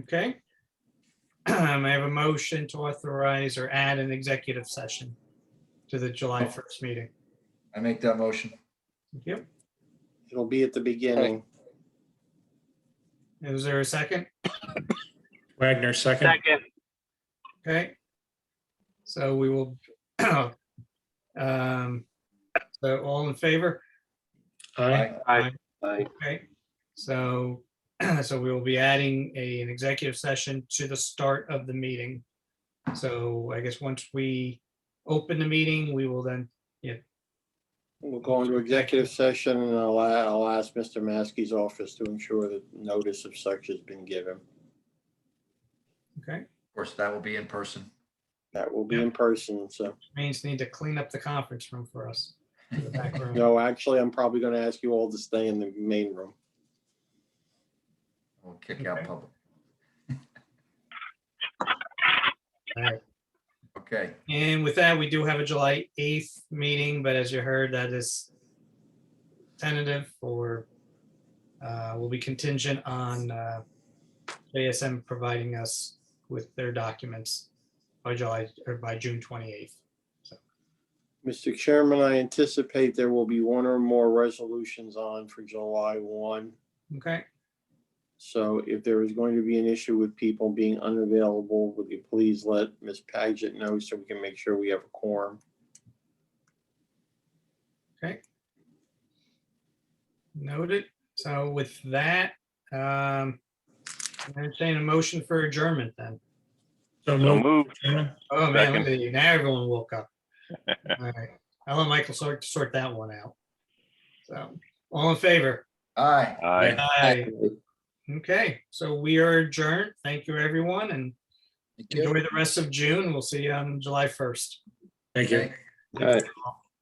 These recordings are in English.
Okay. Um, I have a motion to authorize or add an executive session to the July 1st meeting. I make that motion. Thank you. It'll be at the beginning. Is there a second? Wagner, second. Second, Okay. So we will. um, So all in favor? Aye. Aye. aye, Aye. Okay. So, so we will be adding a, an executive session to the start of the meeting. So I guess once we open the meeting, we will then, We'll go into executive session and I'll, I'll ask Mr. Maskey's office to ensure that notice of such has been given. okay, Of course, that will be in person. That will be in person, so. means need to clean up the conference room for us. the back room. No, actually, I'm probably gonna ask you all to stay in the main room. We'll kick out Okay. public. Alright. Okay, And with that, we do have a July 8th meeting, but as you heard, that is tentative for, uh, will be contingent on uh, JSM providing us with their documents by July, or by June 28th. Mr. Chairman, I anticipate there will be one or more resolutions on for July one. Okay, So if there is going to be an issue with people being unavailable, would you please let Ms. Paget know so we can make sure we have a quorum? noted. So with that, um, I'm entertaining a motion for adjournment then. So so moved. moved. Chairman. Oh, man, look Second. at you. Now everyone woke up. All right. I'll let Michael sort, sort that one out. So, all in favor? aye. Aye. Aye. Okay, so we are adjourned. Thank you, everyone, and Thank you. enjoy the rest of June. We'll see you on July 1st. Thank you. Okay.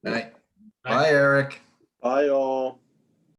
Night. Bye, Eric.